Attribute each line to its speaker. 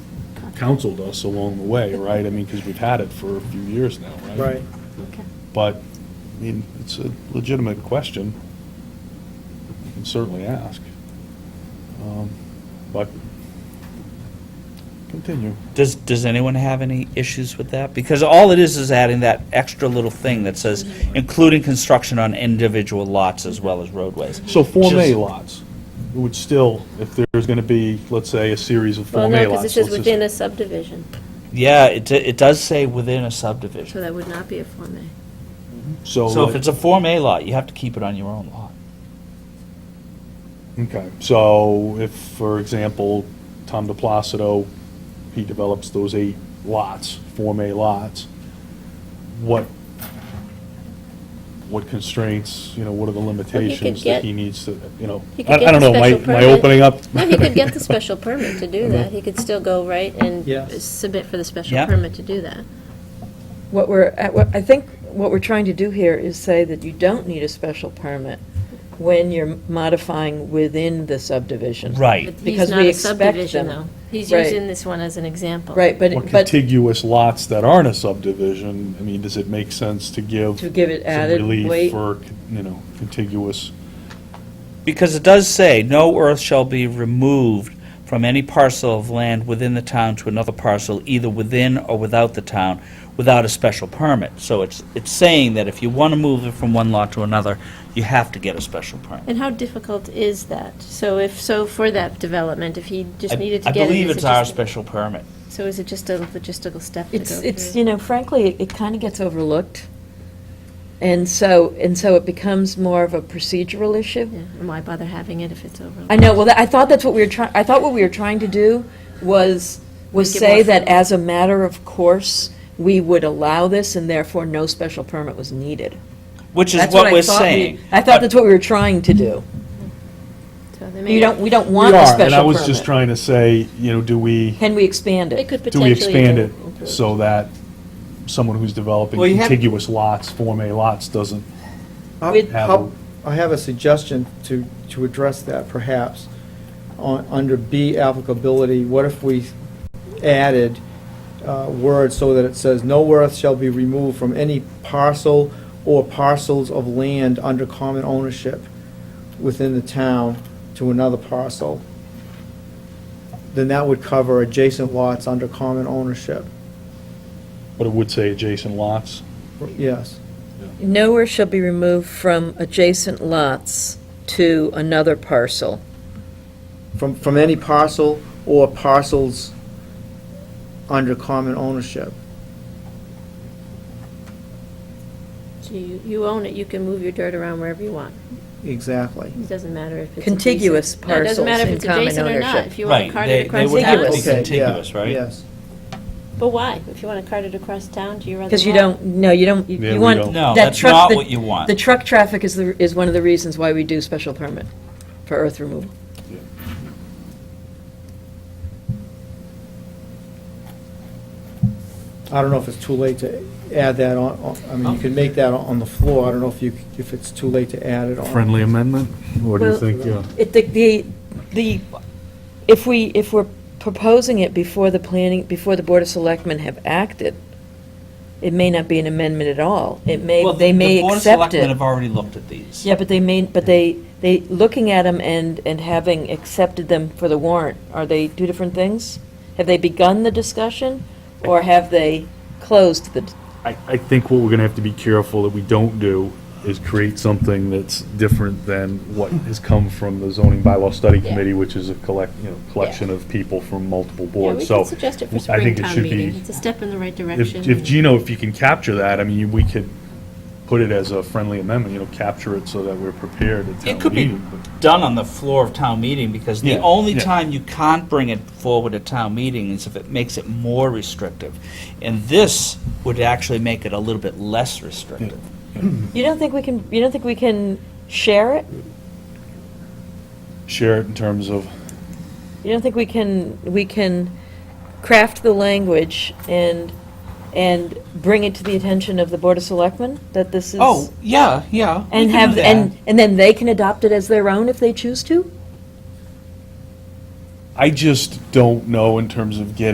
Speaker 1: counseled us along the way, right? I mean, because we've had it for a few years now, right?
Speaker 2: Right.
Speaker 3: Okay.
Speaker 1: But, I mean, it's a legitimate question. You can certainly ask. Um, But, continue.
Speaker 4: Does, does anyone have any issues with that? Because all it is is adding that extra little thing that says, including construction on individual lots as well as roadways.
Speaker 1: So Form A
Speaker 4: Just-
Speaker 1: lots would still, if there's going to be, let's say, a series of
Speaker 3: Well,
Speaker 1: Form
Speaker 3: no,
Speaker 1: A
Speaker 3: because it
Speaker 1: lots.
Speaker 3: says
Speaker 1: let's just-
Speaker 3: within a subdivision,
Speaker 4: Yeah, it, d- it does say within a
Speaker 3: so
Speaker 4: subdivision.
Speaker 3: that would not be a Form A.
Speaker 1: So.
Speaker 4: So if
Speaker 1: like-
Speaker 4: it's a Form A lot, you have to keep it on your own lot.
Speaker 1: Okay, so if, for example, Tom DePlacido, he develops those eight lots, Form A lots, what, what constraints, you know, what are the limitations that
Speaker 3: get-
Speaker 1: he needs to, you know?
Speaker 3: He could
Speaker 1: I
Speaker 3: get
Speaker 1: I don't
Speaker 3: the
Speaker 1: know, am I,
Speaker 3: special
Speaker 1: am I
Speaker 3: permit.
Speaker 1: opening up?
Speaker 3: No, he could get the special permit to do that, he could still go right
Speaker 2: Yeah.
Speaker 3: and submit for the special
Speaker 4: Yeah.
Speaker 3: permit to do that.
Speaker 5: What we're, at- what- I think what we're trying to do here is say that you don't need a special permit when you're modifying within the subdivision.
Speaker 4: Right.
Speaker 3: But he's
Speaker 5: Because
Speaker 3: not
Speaker 5: we
Speaker 3: a
Speaker 5: expect
Speaker 3: subdivision, though.
Speaker 5: them.
Speaker 3: He's
Speaker 5: Right.
Speaker 3: using this one as an example.
Speaker 5: Right,
Speaker 1: Or
Speaker 5: but, but
Speaker 1: contiguous lots that aren't a subdivision, I mean, does it make sense to give?
Speaker 5: To give it
Speaker 1: some
Speaker 5: added
Speaker 1: Relief
Speaker 5: weight?
Speaker 1: for, you know, contiguous,
Speaker 4: Because it does say, no earth shall be removed from any parcel of land within the town to another parcel, either within or without the town, without a special permit. So it's, it's saying that if you want to move it from one lot to another, you have to get a special permit.
Speaker 3: And how difficult is that? So if, so for that development, if he just
Speaker 4: I-
Speaker 3: needed to get it.
Speaker 4: I believe
Speaker 3: is it
Speaker 4: it's our
Speaker 3: just-
Speaker 4: special permit.
Speaker 3: So is it just a logistical step to go
Speaker 5: it's,
Speaker 3: through?
Speaker 5: it's, you know, frankly, it- it kind of gets overlooked. And so, and so it becomes more of a procedural issue.
Speaker 3: Yeah, and why bother having it if it's over?
Speaker 5: I know, well, I thought that's what we were trying, I thought what we were trying to do was, was
Speaker 3: Make it
Speaker 5: say
Speaker 3: more
Speaker 5: that
Speaker 3: formal.
Speaker 5: as a matter of course, we would allow this and therefore no special permit was needed.
Speaker 4: Which is
Speaker 5: That's
Speaker 4: what
Speaker 5: I
Speaker 4: we're
Speaker 5: thought we-
Speaker 4: saying.
Speaker 5: I thought that's what we were trying to do.
Speaker 3: So they may
Speaker 5: You don't, we don't
Speaker 1: we
Speaker 5: want a
Speaker 1: are, and I
Speaker 5: special
Speaker 1: was just
Speaker 5: permit.
Speaker 1: trying to say, you know, do we?
Speaker 5: Can we expand
Speaker 3: They
Speaker 5: it?
Speaker 3: could
Speaker 1: Do we
Speaker 3: potentially.
Speaker 1: expand it
Speaker 3: improve.
Speaker 1: so that someone who's developing
Speaker 4: Well, you have-
Speaker 1: contiguous lots, Form A lots, doesn't,
Speaker 2: I-
Speaker 5: With-
Speaker 2: I'll- I have a suggestion to, to address that perhaps. On, under B applicability, what if we added uh, words so that it says, "No earth shall be removed from any parcel or parcels of land under common ownership within the town to another parcel." Then that would cover adjacent lots under common ownership,
Speaker 1: but it would say adjacent lots?
Speaker 2: yes.
Speaker 5: Nowhere shall be removed from adjacent lots to another parcel.
Speaker 2: From, from any parcel or parcels under common ownership.
Speaker 3: So you, you own it, you can move your dirt around wherever you want.
Speaker 2: Exactly.
Speaker 3: It doesn't matter if it's.
Speaker 5: Contiguous
Speaker 3: adjacent- No, it doesn't matter if
Speaker 5: parcels
Speaker 3: it's
Speaker 5: in common
Speaker 3: adjacent or not.
Speaker 5: ownership.
Speaker 3: If you want to
Speaker 4: Right,
Speaker 3: cart
Speaker 4: they-
Speaker 3: it
Speaker 4: they
Speaker 3: across
Speaker 4: would
Speaker 3: town.
Speaker 4: have to be
Speaker 3: it's-
Speaker 2: Okay, yeah,
Speaker 4: contiguous, right?
Speaker 2: Yes.
Speaker 3: But why? If you want to cart it across town, do you rather?
Speaker 5: Because you
Speaker 3: not?
Speaker 5: don't, no, you don't, you-
Speaker 1: Yeah, we
Speaker 5: you want.
Speaker 1: don't.
Speaker 4: No,
Speaker 5: that
Speaker 4: that's
Speaker 5: truck-
Speaker 4: not
Speaker 5: the-
Speaker 4: what you want.
Speaker 5: The truck traffic is, the is one of the reasons why we do special permit for earth removal.
Speaker 2: I don't know if it's too late to add that on, on- I mean, you
Speaker 4: Oh.
Speaker 2: can make that on the floor. I don't know if you, if it's too late to add it on.
Speaker 1: amendment? What
Speaker 5: do you Well-
Speaker 1: think, yeah?
Speaker 5: It, the- the, the, if we, if we're proposing it before the planning, before the Board of Selectmen have acted, it may not be an amendment at all. It may,
Speaker 4: Well, the-
Speaker 5: they may
Speaker 4: The Board of
Speaker 5: accept
Speaker 4: Selectmen
Speaker 5: it.
Speaker 4: have already looked at these.
Speaker 5: Yeah, but they may, but they, they, looking at them and, and having accepted them for the warrant, are they two different things? Have they begun the discussion, or have they closed the,
Speaker 1: I, I think what we're gonna have to be careful that we don't do is create something that's different than what has come from the zoning bylaw study
Speaker 3: Yeah.
Speaker 1: committee, which is a collect, you know, collection of people from multiple
Speaker 3: Yeah,
Speaker 1: boards,
Speaker 3: we
Speaker 1: so.
Speaker 3: can suggest it for
Speaker 1: I think it
Speaker 3: springtime
Speaker 1: should be-
Speaker 3: meeting. It's a step in the right direction.
Speaker 1: If, if Gino, if you can capture that, I mean, we could put it as a friendly amendment, you know, capture it so that we're prepared at
Speaker 4: It
Speaker 1: town
Speaker 4: could be
Speaker 1: meeting. but-
Speaker 4: done on the floor of town meeting, because the
Speaker 1: Yeah,
Speaker 4: only
Speaker 1: yeah.
Speaker 4: time you can't bring it forward at town meeting is if it makes it more restrictive. And this would actually make it a little bit less restrictive.
Speaker 5: you don't think we can, you don't think we can share it?
Speaker 1: Share it in terms of,
Speaker 5: You don't think we can, we can craft the language and, and bring it to the attention of the Board of Selectmen, that this is?
Speaker 4: Oh, yeah, yeah. we
Speaker 5: And
Speaker 4: can
Speaker 5: have,
Speaker 4: do
Speaker 5: and,
Speaker 4: that.
Speaker 5: and then they can adopt it as their own if they choose to?
Speaker 1: I just don't know in terms of getting